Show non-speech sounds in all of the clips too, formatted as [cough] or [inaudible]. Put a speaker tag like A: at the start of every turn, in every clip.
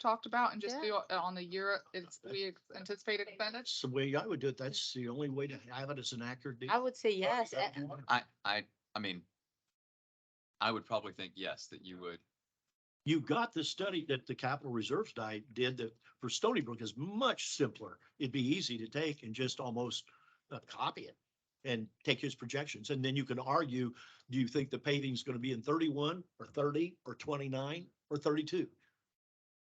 A: talked about and just
B: Yeah.
A: do it on the year, it's, we anticipate expenditures?
C: That's the way I would do it. That's the only way to have it as an accurate. Uh,
B: I would say yes. eh,
D: I, I, I mean, I would probably think yes, that you would.
C: You've got the study that the Capital Reserves Diet did that for Stony Brook is much simpler. It'd be easy to take and just almost uh, copy it and take his projections. And then you can argue, do you think the paving's going to be in thirty-one or thirty or twenty-nine or thirty-two?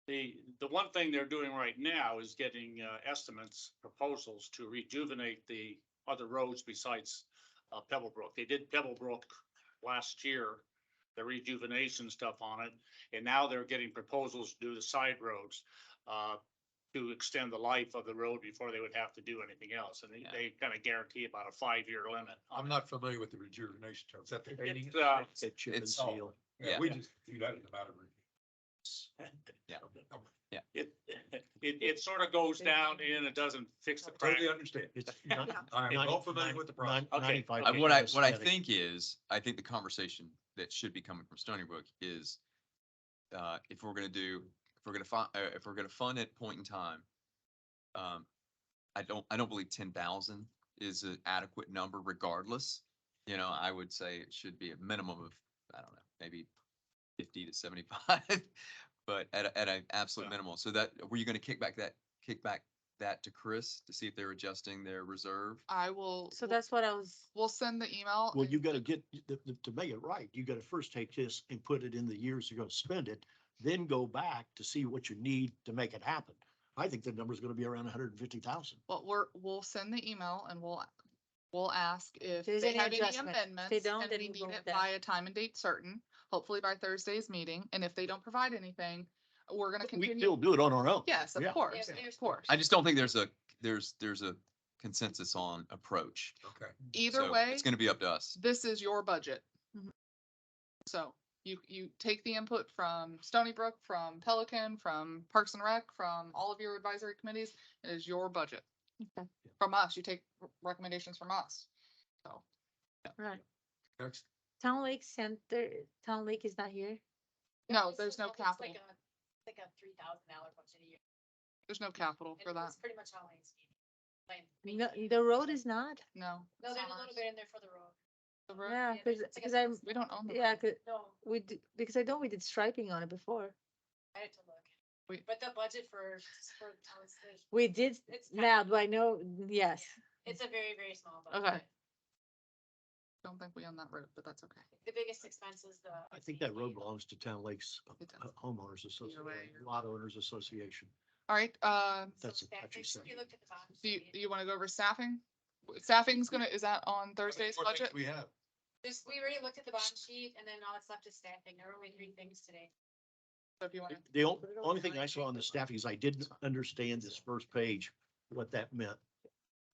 E: The, the one thing they're doing right now is getting uh, estimates, proposals to rejuvenate the other roads besides uh, Pebblebrook. They did Pebblebrook last year, the rejuvenation stuff on it, and now they're getting proposals to do the side roads uh, to extend the life of the road before they would have to do anything else. And they,
D: Yeah.
E: they kind of guarantee about a five-year limit.
F: I'm not familiar with the rejuvenation term. Is that the painting?
E: It's, uh,
C: That chip and
D: It's-
C: seal.
D: Yeah.
F: We just do that in the matter of review.
D: Yeah.
E: It, [laughs] it, it sort of goes down and it doesn't fix the crack.
F: Totally understand.
D: [laughs]
C: It's not-
F: I am well familiar with the process.
C: 95%
E: Okay. Okay.
D: I- Uh, What I, what I
C: aesthetic.
D: think is, I think the conversation that should be coming from Stony Brook is, uh, if we're gonna do, if we're gonna fi- uh, if we're gonna fund at point in time, um, I don't, I don't believe ten thousand is an adequate number regardless. You know, I would say it should be a minimum of, I don't know, maybe fifty to seventy-five, [laughs] but at, a- at an absolute
E: Yeah.
D: minimal. So that, were you gonna kick back that, kick back that to Chris to see if they're adjusting their reserve?
A: I will.
B: So that's what I was,
A: We'll send the email.
C: Well,
A: and-
C: you gotta get, the- the- to make it right, you gotta first take this and put it in the years you're gonna spend it, then go back to see what you need to make it happen. I think the number's gonna be around hundred and fifty thousand.
A: But we're, we'll send the email and we'll, we'll ask if
B: there's
A: they
B: any
A: have any
B: adjustment. If they
A: amendments.
B: don't,
A: and
B: then
A: we
B: we
A: need
B: vote
A: it
B: that.
A: By a time and date certain, hopefully by Thursday's meeting. And if they don't provide anything, we're gonna
C: We can
A: continue.
C: still do it on our own.
A: Yes, of
C: Yeah.
A: course, of course.
D: I just don't think there's a, there's, there's a consensus on approach.
F: Okay.
A: Either
D: So
A: way,
D: It's gonna be up to us.
A: this is your budget.
G: Mm-hmm.
B: Mhm.
A: So you, you take the input from Stony Brook, from Pelican, from Parks and Rec, from all of your advisory committees. It is your budget.
B: Okay.
A: From us, you take r- recommendations from us. So.
B: right,
F: Next.
B: Town Lake Center, Town Lake is not here.
A: No,
G: It's
A: there's no
G: like a- it's
A: capital.
G: like a- it's Like a three thousand dollar budget a year.
A: There's no capital for
G: And
A: that.
G: It's pretty much all Lane's meeting. Lane- Lane
B: No,
G: meeting.
B: the road is not.
A: No.
G: No,
A: it's
G: there's a
A: not
G: little
A: ours.
G: bit in there for the road.
A: The road-
B: Yeah,
G: Yeah,
B: cause,
G: it's like a
B: cause I'm,
G: fence.
A: We don't own the
B: yeah,
A: road.
B: 'cause
G: No,
B: we, d- because I know we did striping on it before.
G: I had to look.
A: We-
G: But the budget for, for town is,
B: We did,
G: it's, tiny.
B: now do I know? Yes.
G: it's a very, very small budget.
A: Okay. Don't think we own that road, but that's okay.
G: The biggest expense is the.
C: I think that road
G: ATV.
C: belongs to Town Lakes
A: It does.
C: uh, Homeowners
A: way,
C: Association,
A: you're-
C: Lot Owners Association.
A: All right, uh,
G: So
C: That's
G: that-
C: actually
G: if
C: second.
G: You looked at the bottom.
A: do you,
G: sheet.
A: you want to go over staffing? W- Staffing's gonna, is that on Thursday's
F: What things
A: budget?
F: We have.
G: Just, we already looked at the bottom sheet and then all that's left is staffing. There were only three things today.
A: So if you want to.
C: The on- only thing I saw on the staffing is I didn't understand this first page, what that meant.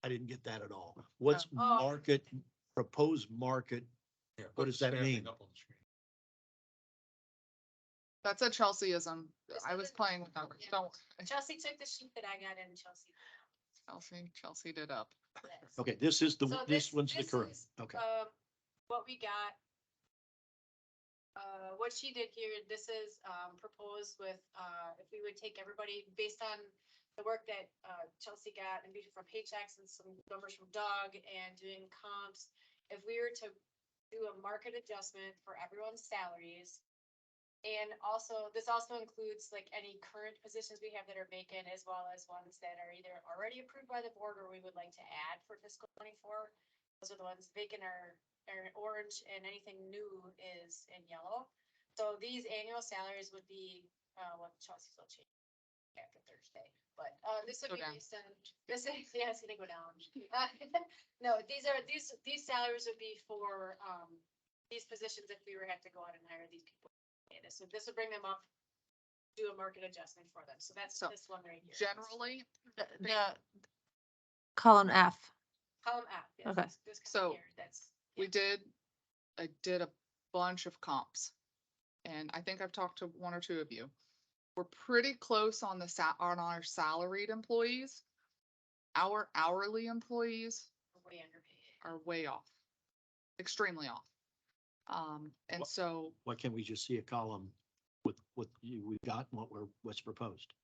C: I didn't get that at all. What's
G: Oh.
C: market, proposed market
F: Yeah,
C: What
F: put
C: does
F: the
C: that
F: staffing
C: mean?
F: up on the screen.
A: That's a Chelseaism.
G: This
A: I
G: is
A: was
G: a-
A: playing with numbers.
G: yeah.
A: Don't, worry.
G: Chelsea took the sheet that I got in Chelsea.
A: Chelsea, Chelsea did up.
G: Yes.
C: Okay, this is the,
G: So
C: this
G: this-
C: one's the
G: this
C: current.
G: is,
C: Okay.
G: um, what we got. Uh, what she did here, this is, um, proposed with, uh, if we would take everybody based on the work that, uh, Chelsea got and based from paychecks and some numbers from Doug and doing comps. If we were to do a market adjustment for everyone's salaries. And also, this also includes like any current positions we have that are vacant as well as ones that are either already approved by the board or we would like to add for fiscal twenty-four. Those are the ones vacant are, are in orange and anything new is in yellow. So these annual salaries would be, uh, what Chelsea's will change after Thursday, but, uh, this would
A: Go
G: be
A: down.
G: based on, this is, [laughs] yeah, it's gonna go down. No, these are, these, these salaries would be for, um, these positions if we were had to go out and hire these people. And So this would bring them up, do a market adjustment for them. So that's
A: So
G: this one right here.
A: Generally,
B: The, the column F.
G: Column F. yes,
B: Okay.
G: this- this
A: So
G: column here, That's.
A: we did, I did a bunch of comps. And I think I've talked to one or two of you. We're pretty close on the sa- on our salaried employees. Our hourly employees
G: we're Way underpaid.
A: are way off, extremely off. Um, and
C: Wha-
A: so
C: Why can't we just see a column with what what you- we've got and what we're, what's proposed.